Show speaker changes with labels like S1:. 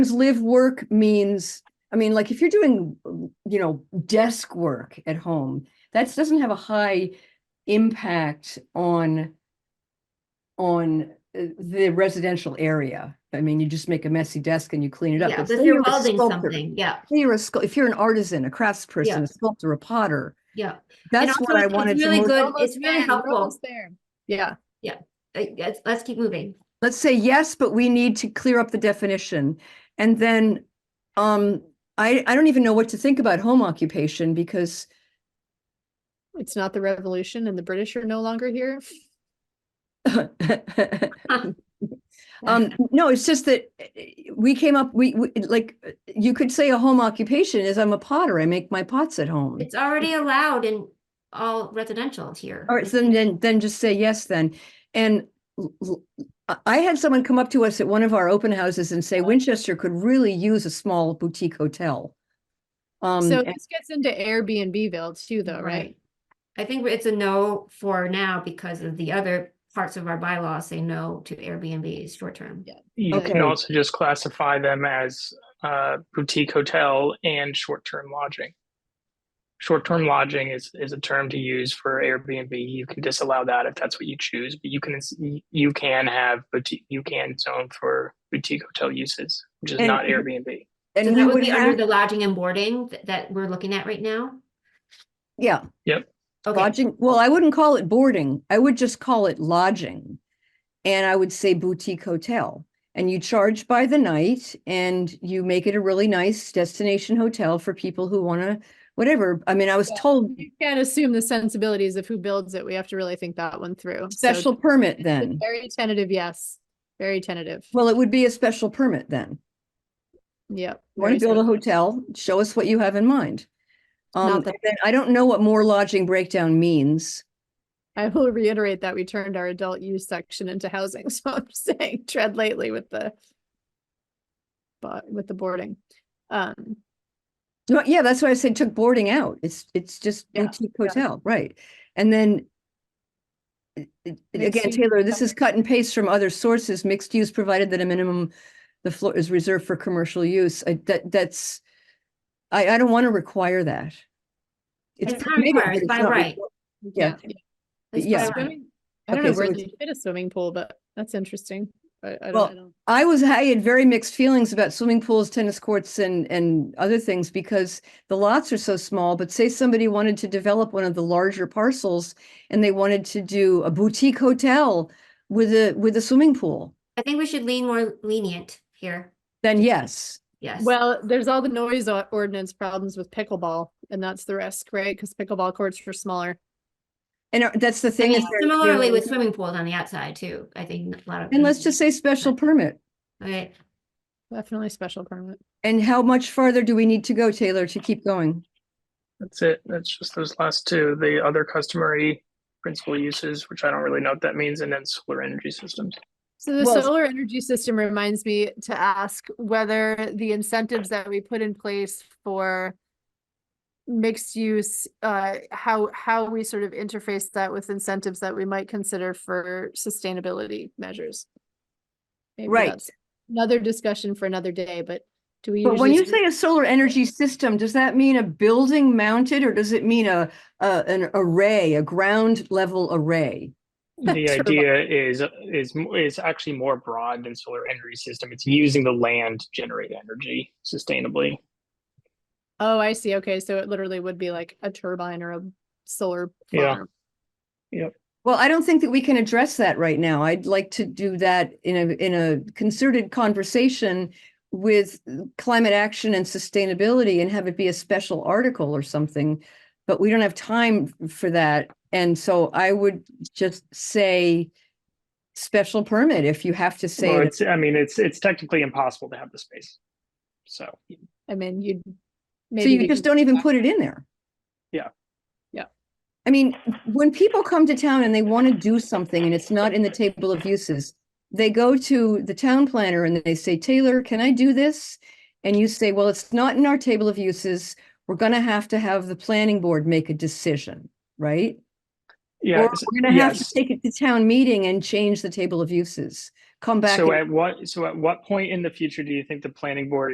S1: Because live work means, I mean, like if you're doing, you know, desk work at home, that doesn't have a high impact on on uh, the residential area. I mean, you just make a messy desk and you clean it up.
S2: Yeah,
S1: But
S2: but if
S1: say
S2: you're
S1: a
S2: welding
S1: sculptor,
S2: something, yeah,
S1: say You're a sculptor, if you're an artisan, a craftsperson, a sculptor, a potter,
S2: yeah. And
S1: that's
S2: also
S1: what I
S2: it's- it's
S1: wanted to.
S2: really
S1: most-
S2: good-
S3: Almost
S2: it's really
S3: there, we're
S2: helpful.
S3: almost there.
S1: Yeah,
S2: Uh, Let's, let's keep moving.
S1: let's say yes, but we need to clear up the definition. And then, um, I, I don't even know what to think about home occupation because
S3: It's not the revolution and the British are no longer here.
S1: Um, no, it's just that eh, eh, we came up, we, we, like, eh, you could say a home occupation is I'm a potter, I make my pots at home.
S2: It's already allowed in all residential here.
S1: All right, so then, then, then just say yes then. And l- l- I- I had someone come up to us at one of our open houses and say Winchester could really use a small boutique hotel. Um,
S3: So
S1: and-
S3: this gets into Airbnbville too, though, right?
S2: I think it's a no for now because of the other parts of our bylaws say no to Airbnbs short term.
S3: Yeah.
S4: You
S3: Okay.
S4: could also just classify them as uh, boutique hotel and short-term lodging. Short-term lodging is is a term to use for Airbnb. You can disallow that if that's what you choose, but you can you can have boutique you can zone for boutique hotel uses, which is
S1: And-
S4: not Airbnb.
S2: So
S1: And we
S2: that would
S1: would
S2: be under
S1: have,
S2: the lodging and boarding th- that we're looking at right now.
S1: yeah,
S2: Okay,
S1: lodging, well, I wouldn't call it boarding, I would just call it lodging. And I would say boutique hotel. And you charge by the night and you make it a really nice destination hotel for people who wanna, whatever. I mean, I was
S3: Yeah.
S1: told
S3: You can't assume the sensibilities of who builds it. We have to really think that one through. So
S1: special permit
S3: it's a
S1: then.
S3: Very tentative, yes. Very tentative.
S1: Well, it would be a special permit then.
S3: Yep.
S1: Want
S3: very
S1: to build a
S3: special.
S1: hotel, show us what you have in mind. Um,
S3: Not that-
S1: and then I don't know what more lodging breakdown means.
S3: I will reiterate that we turned our adult use section into housing, so I'm saying tread lightly with the but with the boarding. Um,
S1: No, yeah, that's why I said took boarding out. It's, it's just
S3: Yeah,
S1: boutique hotel, right? And then it- it-
S3: Mixed
S1: again,
S3: use
S1: Taylor, this
S3: hotel.
S1: is cut and paste from other sources, mixed use, provided that a minimum the floor is reserved for commercial use. I, that, that's, I, I don't want to require that.
S2: It's not
S1: permitted,
S2: required,
S1: but
S2: it's by
S1: not
S2: right.
S1: required. Yeah,
S2: Let's
S1: yeah.
S2: go on.
S3: Swimming- I don't
S1: Okay,
S3: know
S1: so
S3: where
S1: it's-
S3: they fit a swimming pool, but that's interesting. I, I
S1: Well,
S3: don't, I don't.
S1: I was, I had very mixed feelings about swimming pools, tennis courts and, and other things because the lots are so small, but say somebody wanted to develop one of the larger parcels and they wanted to do a boutique hotel with a, with a swimming pool,
S2: I think we should lean more lenient here.
S1: then yes.
S2: Yes.
S3: Well, there's all the noise o- ordinance problems with pickleball, and that's the risk, right? Because pickleball courts are smaller.
S1: And uh, that's the
S2: I
S1: thing. is
S2: mean,
S1: there-
S2: Similarly
S1: there-
S2: with swimming pools on the outside too, I think a lot of.
S1: And let's just say special permit.
S2: Okay,
S3: Definitely special permit.
S1: And how much farther do we need to go, Taylor, to keep going?
S4: That's it. That's just those last two. The other customary principal uses, which I don't really know what that means, and then solar energy systems.
S3: So the
S1: Well-
S3: solar energy system reminds me to ask whether the incentives that we put in place for mixed use, uh, how, how we sort of interface that with incentives that we might consider for sustainability measures. Maybe
S1: Right.
S3: that's Another discussion for another day, but do we usually?
S1: But when you
S3: sort of-
S1: say a solar energy system, does that mean a building mounted or does it mean a, a, an array, a ground level array?
S4: the
S3: Sort of
S4: idea is is m- is actually more broad than solar energy system. It's using the land to generate energy sustainably.
S3: Oh, I see. Okay, so it literally would be like a turbine or a solar
S4: Yeah.
S3: farm.
S1: Well, I don't think that we can address that right now. I'd like to do that in a, in a concerted conversation with climate action and sustainability and have it be a special article or something. But we don't have time for that. And so I would just say special permit if you have to say.
S4: Well,
S1: it.
S4: it's I mean it's it's technically impossible to have the space. So
S3: I mean, you'd.
S1: So
S3: maybe
S1: you
S3: we
S1: just
S3: could-
S1: don't even put it in there.
S4: Yeah.
S3: Yeah.
S1: I mean, when people come to town and they want to do something and it's not in the table of uses, they go to the town planner and they say, Taylor, can I do this? And you say, well, it's not in our table of uses. We're going to have to have the planning board make a decision, right?
S4: yeah,
S1: Or
S4: it's-
S1: we're going to have to
S4: yes.
S1: take it to town meeting and change the table of uses. come back.
S4: So
S1: and-
S4: at what, so at what point in the future do you think the planning board